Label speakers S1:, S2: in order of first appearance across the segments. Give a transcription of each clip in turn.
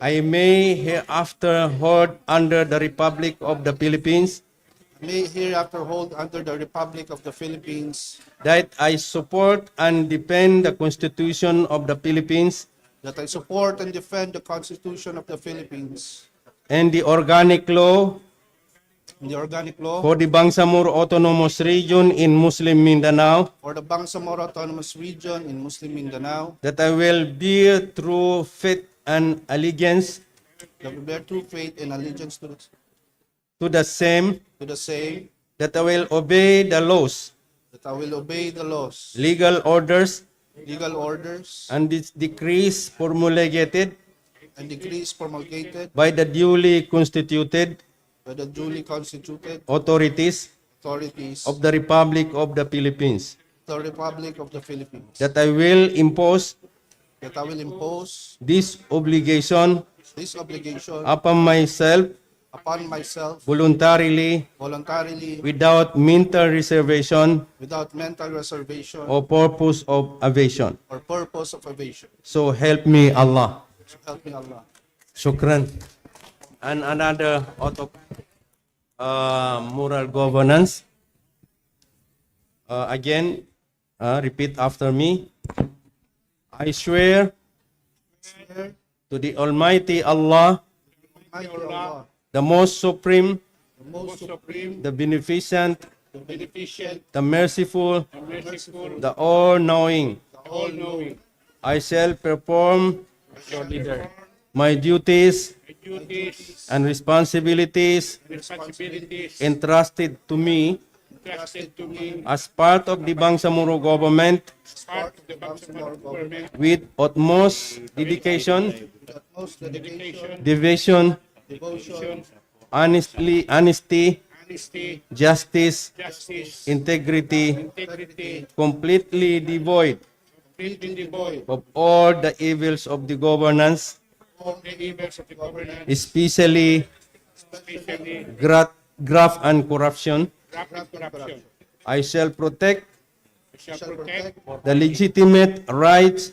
S1: I may hereafter hold under the Republic of the Philippines
S2: may hereafter hold under the Republic of the Philippines
S1: that I support and defend the Constitution of the Philippines
S2: that I support and defend the Constitution of the Philippines
S1: and the organic law
S2: and the organic law
S1: for the Bangsamoro Autonomous Region in Muslim Mindanao
S2: for the Bangsamoro Autonomous Region in Muslim Mindanao,
S1: that I will bear true faith and allegiance
S2: that we bear true faith and allegiance to, to
S1: to the same,
S2: the same,
S1: that I will obey the laws,
S2: that I will obey the laws,
S1: legal orders,
S2: legal orders,
S1: and its decrees promulgated
S2: and decrees promulgated
S1: by the duly constituted
S2: by the duly constituted
S1: authorities
S2: authorities
S1: of the Republic of the Philippines,
S2: the Republic of the Philippines,
S1: that I will impose
S2: that I will impose
S1: this obligation
S2: this obligation
S1: upon myself
S2: upon myself
S1: voluntarily
S2: voluntarily
S1: without mental reservation
S2: without mental reservation
S1: or purpose of evasion.
S2: or purpose of evasion.
S1: So help me Allah.
S2: So help me Allah.
S1: Shukran. And another out of uh, moral governance. Uh, again, uh, repeat after me. I swear
S2: Swear
S1: to the Almighty Allah,
S2: Almighty Allah,
S1: the most supreme,
S2: the most
S3: supreme,
S1: the beneficent,
S3: the beneficent,
S1: the merciful,
S3: the merciful,
S1: the all knowing.
S3: the all-knowing,
S1: I shall perform
S3: your leader.
S1: my duties
S3: The duties
S1: and responsibilities
S3: and responsibilities
S1: entrusted to me
S3: entrusted to me
S1: as part of the Bangsamoro government
S3: as part of the Bangsamoro government,
S1: with utmost dedication,
S2: with utmost dedication,
S1: devotion,
S2: devotion,
S1: honestly, honesty,
S3: honesty,
S1: justice,
S3: justice,
S1: integrity,
S3: integrity,
S1: completely devoid
S3: completely devoid
S1: of all the evils of the governance,
S3: of the evils of the government,
S1: especially
S3: especially
S1: graft, graft and corruption.
S3: rapid corruption.
S1: I shall protect
S3: We shall protect
S1: the legitimate rights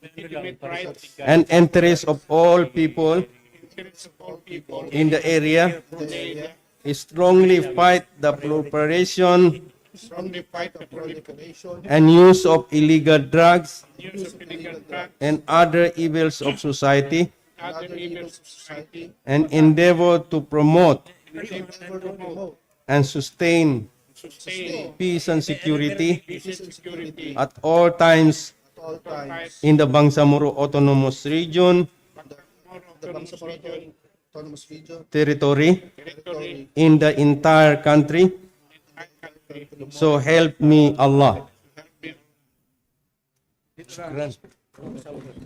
S3: the legitimate rights and
S1: and interests of all people
S3: interests of all people
S1: in the area,
S3: from the area,
S1: strongly fight the proliferation
S2: strongly fight the proliferation,
S1: and use of illegal drugs
S3: use of illegal drugs,
S1: and other evils of society,
S3: and other evils of society,
S1: and endeavor to promote
S3: and endeavor to
S2: and promote
S1: and sustain
S3: sustain
S1: peace and security
S3: peace and security
S1: at all times
S2: at all times
S1: in the Bangsamoro Autonomous Region
S2: the Bangsamoro Auto- Autonomous Region
S1: territory
S3: territory
S1: in the entire country.
S3: and country.
S1: So help me Allah. Shukran.